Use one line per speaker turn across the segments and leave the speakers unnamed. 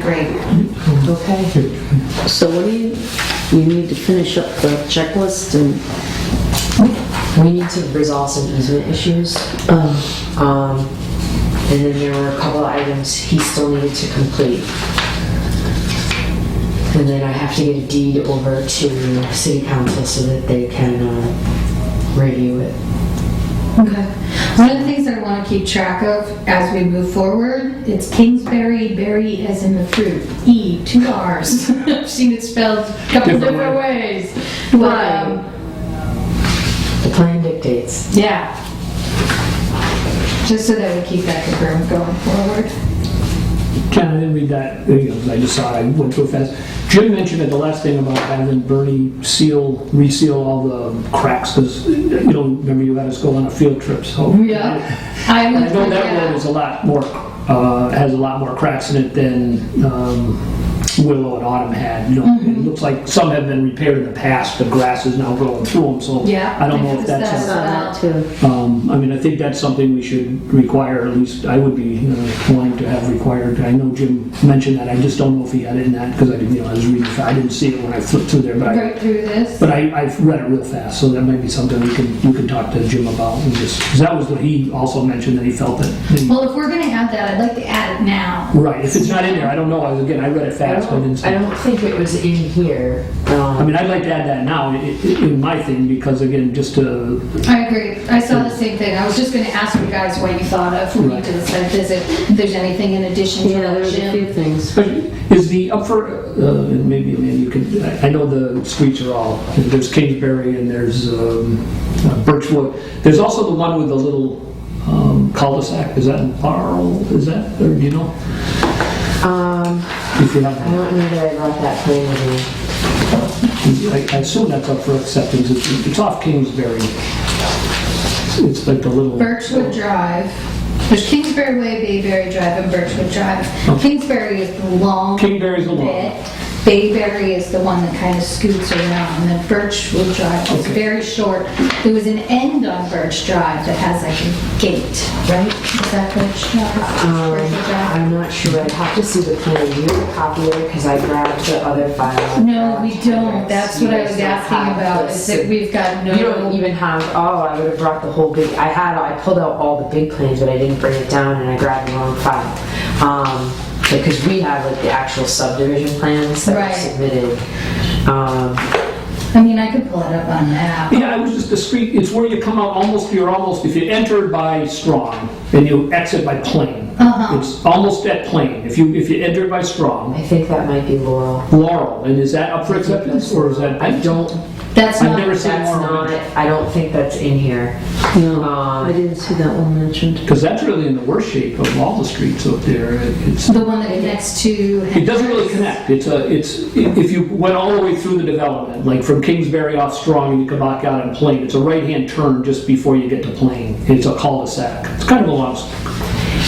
Great. Okay.
So what do you, you need to finish up the checklist and,
We need to resolve some easement issues.
uh,
Um, And then there were a couple of items he still needed to complete. And then I have to get a deed over to city council so that they can uh, review it.
Okay. One of the things that I want to keep track of as we move forward, it's Kingsbury, berry as in the fruit, E, two Rs. I've seen it spelled a couple
Different
different ways. Um,
The plan dictates.
Yeah. Just so that we keep that confirmed going forward.
Ken, I didn't read that, you know, I just saw it, I went too fast. Jim mentioned at the last thing about having Bernie seal, reseal all the cracks, because, you know, remember you had us go on a field trip, so.
I
I
would,
know that road is
yeah.
a lot more, uh, has a lot more cracks in it than um, Willow and Autumn had, you know. It looks like some have been repaired in the past, the grass is now growing through them, so.
Yeah,
I don't know
because
if that's. a-
that's-
saw that too.
um, I mean, I think that's something we should require, at least I would be uh, wanting to have required. I know Jim mentioned that, I just don't know if he had it in that, because I didn't, you know, I was reading, I didn't see it when I flipped through there, but I,
Right through this.
but I, I've read it real fast, so that might be something we can, you can talk to Jim about, and just, because that was what he also mentioned, that he felt that,
Well, if we're gonna add that, I'd like to add it now.
right, if it's not in there, I don't know, I was- again, I read it
I
fast, but I didn't
don't, I
see.
don't think it was in here.
I
Um,
mean, I'd like to add that now, i- i- in my thing, because again, just to,
I agree. I saw the same thing. I was just gonna ask you guys what you thought of when you did the site visit, if there's anything in addition to
Yeah,
what
there's a
Jim.
few things.
But Is the up for, uh, maybe, maybe you can, I I know the streets are all, there's Kingsbury and there's um, uh, Birchwood. There's also the one with the little um, cul-de-sac, is that in Laurel, is that, or do you know?
um,
If you
I
have,
don't know that I brought that plan in here.
I I assume that's up for acceptance, it's it's off Kingsbury. It's like the little.
Birchwood Drive. There's Kingsbury Way, Bayberry Drive, and Birchwood
Oh.
Drive. Kingsbury is the long
Kingsbury's the long.
bit. Bayberry is the one that kind of scoots around, and then Birchwood Drive is
Okay.
very short. There was an end on Birch Drive that has like a gate, right? Is that Birch
Uh,
Drive?
Um,
Birchwood Drive?
I'm not sure, I'd have to see the plan, do you have a copy of it, because I grabbed the other file.
No, we don't. That's what I was asking about, is that we've got
You don't
no,
even have, oh, I would have brought the whole big, I had, I pulled out all the big plans, but I didn't bring it down, and I grabbed the wrong file. Um, because we have like the actual subdivision plans that
Right.
were submitted. Um,
I mean, I could pull it up on that.
Yeah, I was just the street, it's where you come out almost, you're almost, if you enter by Strong and you exit by Plain.
Uh-huh.
It's almost at Plain, if you, if you enter by Strong,
I think that might be Laurel.
Laurel, and is that up for acceptance or is that?
I don't,
That's
I've
not,
never seen
that's
Laurel.
not, I don't think that's in here.
No,
Um,
I didn't see that one mentioned.
Because that's really in the worst shape of all the streets up there. It- It's,
the one that connects to.
it doesn't really connect. It's a, it's, if you went all the way through the development, like from Kingsbury off Strong and you come back out on Plain, it's a right-hand turn just before you get to Plain. It's a cul-de-sac. It's kind of a long,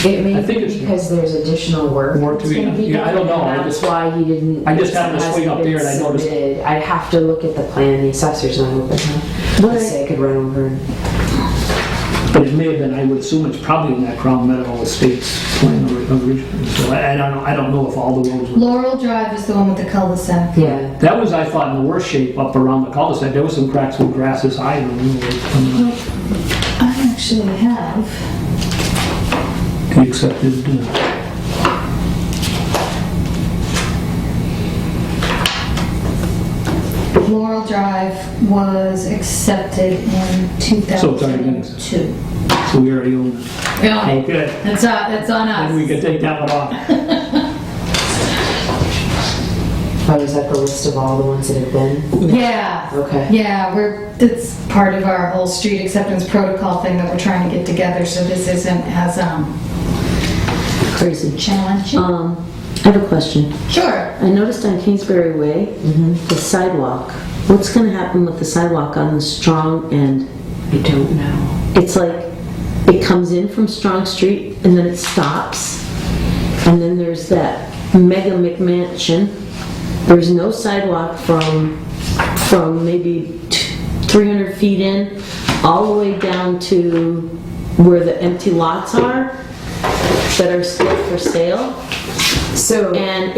It
I
may
think it's-
be because there's additional work.
Work to
that's
be
gonna
done. Yeah, I don't know. I
and That's
just-
why he didn't.
I just happened to
it
swing up
hasn't
there and I
been
noticed-
submitted. I'd have to look at the plan, the assessor's not open. huh?
What I-
Let's say I could run over and.
But it may have been, I would assume it's probably in that Crown Medical Estates plan or- originally. So I, I don't, know- I don't know if all the roads were.
Laurel Drive is the one with the cul-de-sac.
Yeah.
That was, I thought, in the worst shape up around the cul-de-sac. There was some cracks where grass is high and we were coming up.
I actually have.
He accepted. uh,
Laurel Drive was accepted in
So it's already been accepted.
2002.
So we already own it.
Yeah,
Okay.
that's, on- that's on
Then we
us.
could take that one off.
Oh, is that the list of all the ones that have been?
Yeah,
Okay.
yeah, we're, it's part of our whole street acceptance protocol thing that we're trying to get together, so this isn't as, um,
Crazy.
challenging.
Um, I have a question.
Sure.
I noticed on Kingsbury Way,
Mm-hmm.
the sidewalk, what's gonna happen with the sidewalk on the strong end?
I don't know.
It's like, it comes in from Strong Street and then it stops. And then there's that mega McMansion. There's no sidewalk from, from maybe t- 300 feet in, all the way down to where the empty lots are that are still for sale.
So.
And